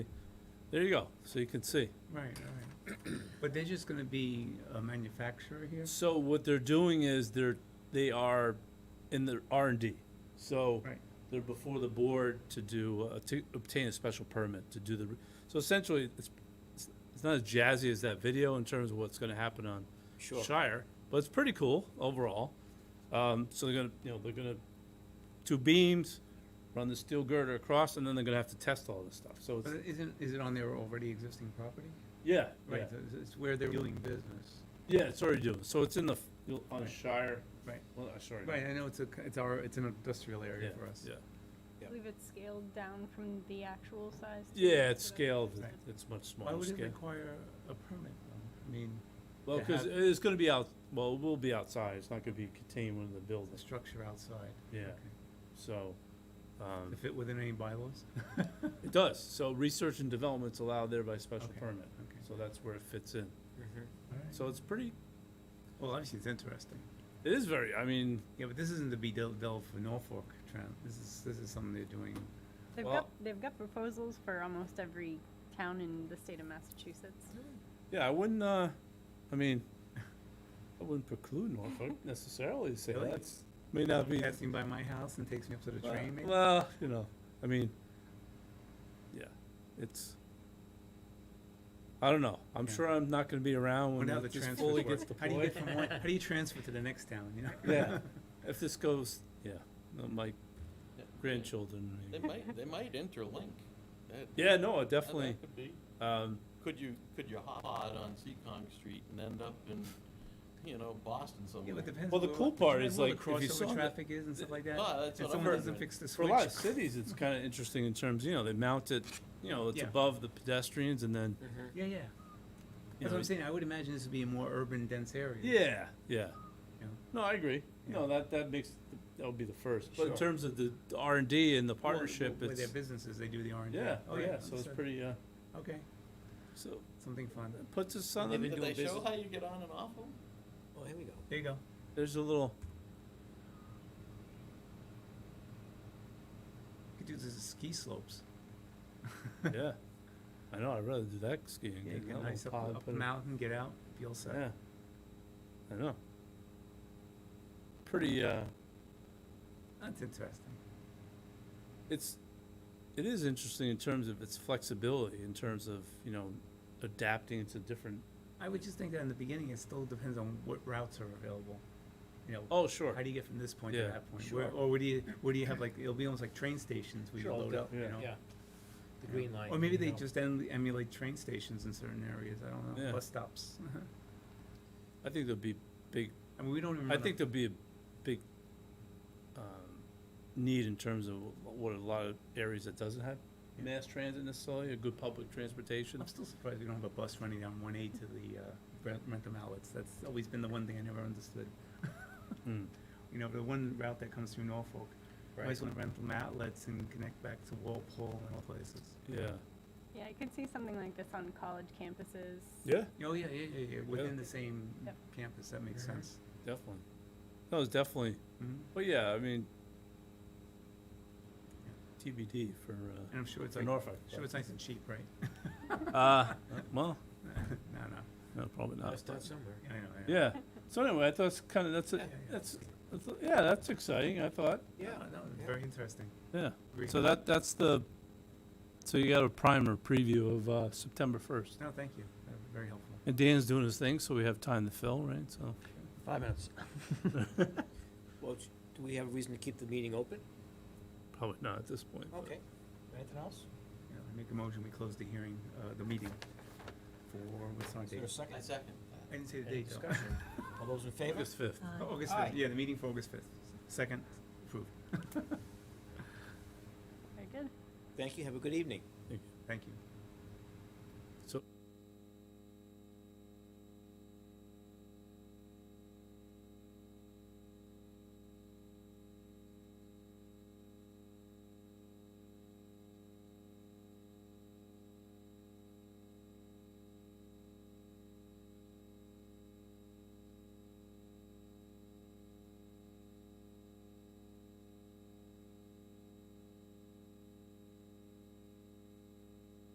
There you go, so you can see. Right, right. But they're just gonna be a manufacturer here? So what they're doing is they're, they are in the R and D. So Right. they're before the board to do, uh, to obtain a special permit to do the, re- so essentially, it's, it's- it's not as jazzy as that video in terms of what's gonna happen on Sure. Shire, but it's pretty cool overall. Um, so they're gonna, you know, they're gonna, two beams, run the steel girder across, and then they're gonna have to test all this stuff, so it's, But isn't, is it on their already existing property? yeah, yeah. Right, so it's- it's where they're doing business. Yeah, it's already doing, so it's in the, f- you'll- on Right. Shire, Right, well, uh, sorry. right, I know it's a, c- it's our, it's an industrial area Yeah, for us. Yeah, Yeah. I believe it's scaled down from the actual size. to- yeah, it's to the- scaled, Right. it's much Why smaller would it scale. require a permit though? I mean, Well, to because have- it's gonna be out, well, it will be outside, it's not gonna be contained within the building, the structure outside. yeah, Okay. so, um, To fit within any bylaws? it does, so research and development's allowed there by special Okay, permit, okay. so that's where it fits in. Mhm. All right. So it's pretty, Well, obviously it's interesting. it is very, I mean, Yeah, but this isn't the Be Del Del for Norfolk, Trent. This is, this is something they're doing. They've Well- got, they've got proposals for almost every town in the state of Massachusetts. Mm-hmm. yeah, I wouldn't, uh, I mean, I wouldn't preclude Norfolk necessarily to say Really? that, may not be. Passing by my house and takes me up to the Well, train maybe? Well, you know, I mean, yeah, it's. I don't know. I'm Yeah. sure I'm not going to be around Well, when now that- the this transfers fully work. gets How do you deployed. get from one, how do you transfer to the next town, you know? Yeah, if this goes, yeah, no, my Yeah, they- grandchildren. They maybe. might, they might interlink. That- Yeah, no, it that- that definitely. could be. Um, Could you, could you hot on Seccong Street and end up in, you know, Boston Yeah, somewhere? but it depends. Well, the what- cool part depends is, what like, if you the saw crossover the- traffic is and stuff like that. Ah, that's And what I'm someone doesn't wondering. fix the for a switch. lot of cities, it's kind of interesting in terms, you know, they mount it, you know, it's Yeah. above the pedestrians and then. Mhm. Yeah, yeah. you That's what know, I'm saying. I would imagine this would be a more urban dense area. Yeah, yeah. Yeah. No, I agree. Yeah. No, that, that makes, that would be the first. But in Sure. terms of the the R and D and the Well, partnership, Where their it's, businesses, they do the R and D. yeah, oh yeah, so it's pretty, uh, Okay, so something fun. it puts us on, They've the- been Did doing they show business- how you get on and off them? Oh, here we go. There you go. there's a little, You could do this as ski slopes. yeah. I know, I'd rather do that skiing. Yeah, than you that get little nice up, pod, up put it- mountain, get out, be all set. Yeah. I know. Pretty, uh, That's interesting. it's, it is interesting in terms of its flexibility, in terms of, you know, adapting to different, I would just think that in the beginning, it still depends on what routes are available. You know, oh, sure. how do you get from this point to Yeah, that point? sure. Where, or where do you, where do you have like, it'll be almost like train stations where you Sure, load yeah, up, you yeah. know? Yeah. The Yeah. green line. Or maybe you they know. just em- emulate train stations in certain areas, I don't Yeah. know, bus stops. I think there'll be big I mean, we don't even. I run a- think there'll be a big um, need in terms of what a lot of areas that doesn't have Yeah. mass transit necessarily, a good public transportation. I'm still surprised we don't have a bus running down one eight to the, uh, Brent- Rentham outlets, that's always been the one thing I never understood. Mm. You know, the one route that comes through Norfolk, might as well have Rentham outlets and connect back to Walpole and all places. Yeah. Yeah, I could see something like this on college campuses. Yeah. Oh, yeah, yeah, yeah, yeah, within the same Yep. campus, that makes Mhm. sense. Definitely. No, it's definitely. Mhm. But yeah, I mean, TBD for uh, And I'm sure it's for like, Norfolk. sure it's nice and cheap, right? Uh, well, No, no, no, probably I not. start somewhere. I know, I know. Yeah. So anyway, I thought it's kind of that's a, Yeah, yeah, yeah. that's, that's yeah that's exciting. I thought Yeah. No, no, yeah. very interesting. yeah. Agree. So that that's the. So you got a primer preview of uh, September first. No, thank you. That was Very helpful. And Dan's doing his thing, so we have time to fill, right? So, Five minutes. Well, sh- do we have a reason to keep the meeting open? probably not at this point. but- Okay. Anything else? Yeah, I make a motion, we close the hearing, uh, the meeting for, what's on Is there a date? second? I second that. I didn't say the Any date though. discussion? All those in favor? August fifth. Oh, August Aye. fifth, yeah, the meeting for August fifth. Second, approved. Very good. Thank you, have a good evening.